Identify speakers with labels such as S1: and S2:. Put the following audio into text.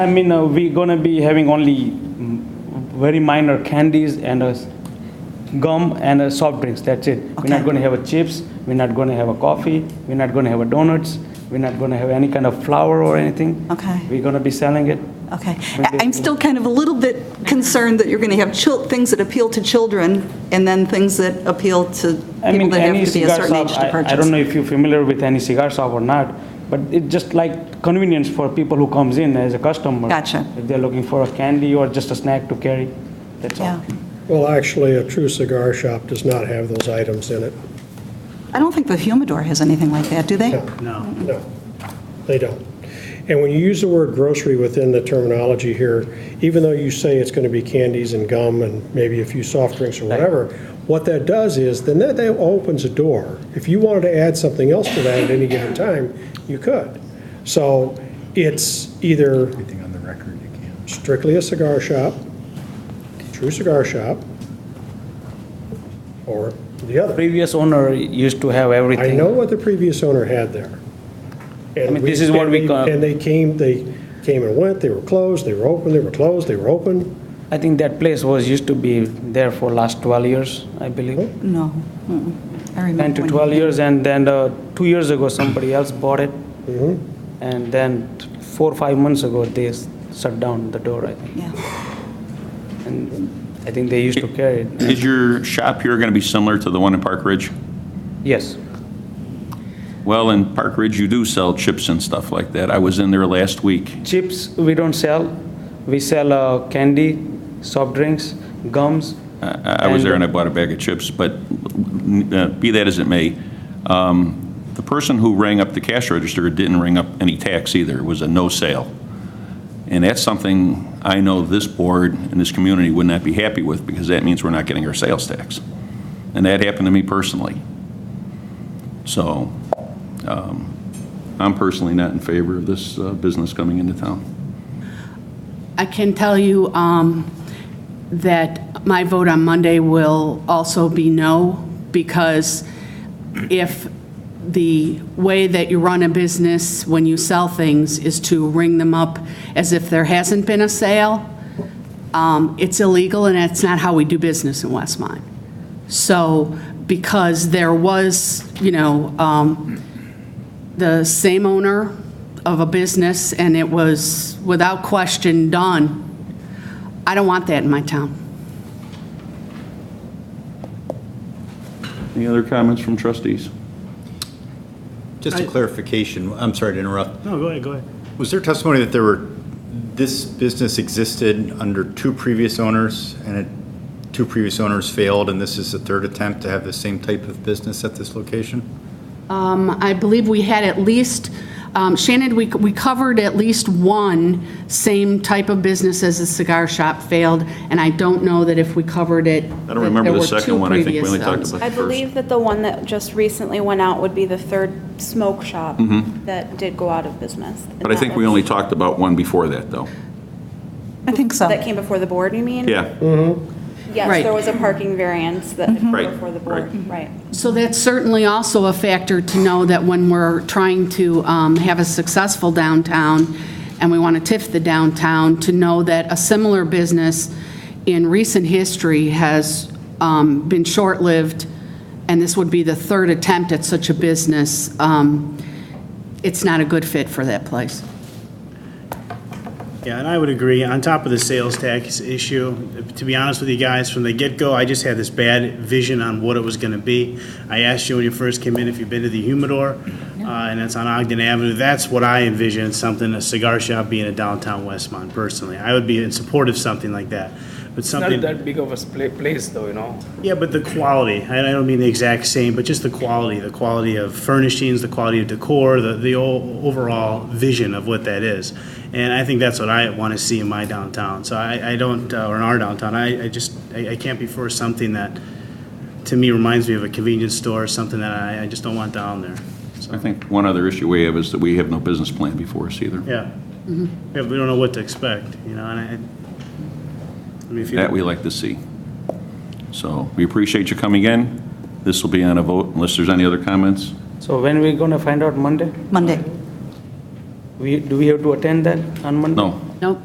S1: I mean, uh, we're gonna be having only mm, very minor candies and a s- gum and a soft drinks. That's it. We're not
S2: Okay.
S1: gonna have a chips. We're not gonna have a coffee. We're not gonna have a donuts. We're not gonna have any kind of flour or anything.
S2: Okay.
S1: We're gonna be selling it.
S2: Okay. I- I'm still kind of a little bit concerned that you're going to have chil- things that appeal to children and then things that appeal to
S1: I
S2: people
S1: mean,
S2: that
S1: any
S2: have to be a
S1: cigar
S2: certain age
S1: shop.
S2: to
S1: I,
S2: purchase.
S1: I don't know if you're familiar with any cigar shop or not, but it's just like convenience for people who comes in as a customer.
S2: Gotcha.
S1: If they're looking for a candy or just a snack to carry, that's all.
S2: Yeah.
S3: Well, actually, a true cigar shop does not have those items in it.
S2: I don't think the humidor has anything like that, do they?
S3: No. No, they don't. And when you use the word grocery within the terminology here, even though you say it's going to be candies and gum and maybe a few soft drinks or whatever, what that does is, then that, that opens a door. If you wanted to add something else to that at any given time, you could. So it's either
S4: Everything on the record you can.
S3: strictly a cigar shop, true cigar shop, or the other.
S1: Previous owner used to have
S3: I
S1: everything.
S3: know what the previous owner had there. And
S1: I mean,
S3: we-
S1: this is what we
S3: and they-
S1: call-
S3: And they came, they came and went, they were closed, they were open, they were closed, they were open.
S1: I think that place was, used to be there for last 12 years, I believe.
S2: No. Mm-mm. I remember.
S1: 10 to
S2: when-
S1: 12 years, and then uh, two years ago, somebody else bought it. And then four, or five months ago, they s- shut down the door, I think.
S2: Yeah.
S1: And I think they used to carry it.
S5: Is your shop here going to be similar to the one in Park Ridge?
S1: Yes,
S5: Well, in Park Ridge, you do sell chips and stuff like that. I was in there last week.
S1: chips, we don't sell. We sell uh, candy, soft drinks, gums.
S5: I I was there and I bought a bag of chips, but uh, be that as it may, um, the person who rang up the cash register didn't ring up any tax either. It was a no sale. And that's something I know this board and this community would not be happy with because that means we're not getting our sales tax. And that happened to me personally. So um, I'm personally not in favor of this uh, business coming into town.
S6: I can tell you um, that my vote on Monday will also be no, because if the way that you run a business when you sell things is to ring them up as if there hasn't been a sale, um, it's illegal, and that's not how we do business in Westmont. So, because there was, you know, um, the same owner of a business, and it was without question done. I don't want that in my town.
S5: Any other comments from trustees?
S4: Just a clarification, I'm sorry to interrupt.
S7: No, go ahead, go ahead.
S4: Was there testimony that there were, this business existed under two previous owners, and it, two previous owners failed, and this is the third attempt to have the same type of business at this location?
S6: Um, I believe we had at least, um, Shannon, we we covered at least one same type of business as the cigar shop failed, and I don't know that if we covered it.
S5: I don't remember the second one. I think we only talked about the
S8: I
S5: first.
S8: believe that the one that just recently went out would be the third smoke shop that did go out of business.
S5: Mm-hmm. But I think we only talked about one before that, though.
S2: I think so.
S8: That came before the board, you mean?
S5: Yeah, Mm-hmm.
S8: Yes,
S6: Right.
S8: there was a parking variance that had come
S5: Right,
S8: before the board, right.
S6: So that's certainly also a factor to know that when we're trying to um, have a successful downtown and we want to TIF the downtown, to know that a similar business in recent history has um, been short-lived, and this would be the third attempt at such a business. Um, It's not a good fit for that place.
S7: Yeah, and I would agree, on top of the sales tax issue, to be honest with you guys, from the get-go, I just had this bad vision on what it was gonna be. I asked you when you first came in if you've been to the Humidor, uh, and it's on Ogden Avenue, that's what I envisioned, something, a cigar shop being in downtown Westmont, personally. I would be in support of something like that, but something.
S1: big of a place, though, you know?
S7: Yeah, but the quality, I I don't mean the exact same, but just the quality, the quality of furnishings, the quality of decor, the, the o- overall vision of what that is. And I think that's what I want to see in my downtown. So I, I don't, uh, or in our downtown, I, I just, I, I can't be for something that, to me, reminds me of a convenience store, something that I, I just don't want down there.
S5: I think one other issue we have is that we have no business plan before us either.
S7: Yeah. Yeah, we don't know what to expect, you know, and I, I mean, if you.
S5: That we like to see. So we appreciate you coming in. This will be on a vote unless there's any other comments.
S1: So when we gonna find out Monday?
S2: Monday.
S1: We, do we have to attend that on Monday?
S5: No,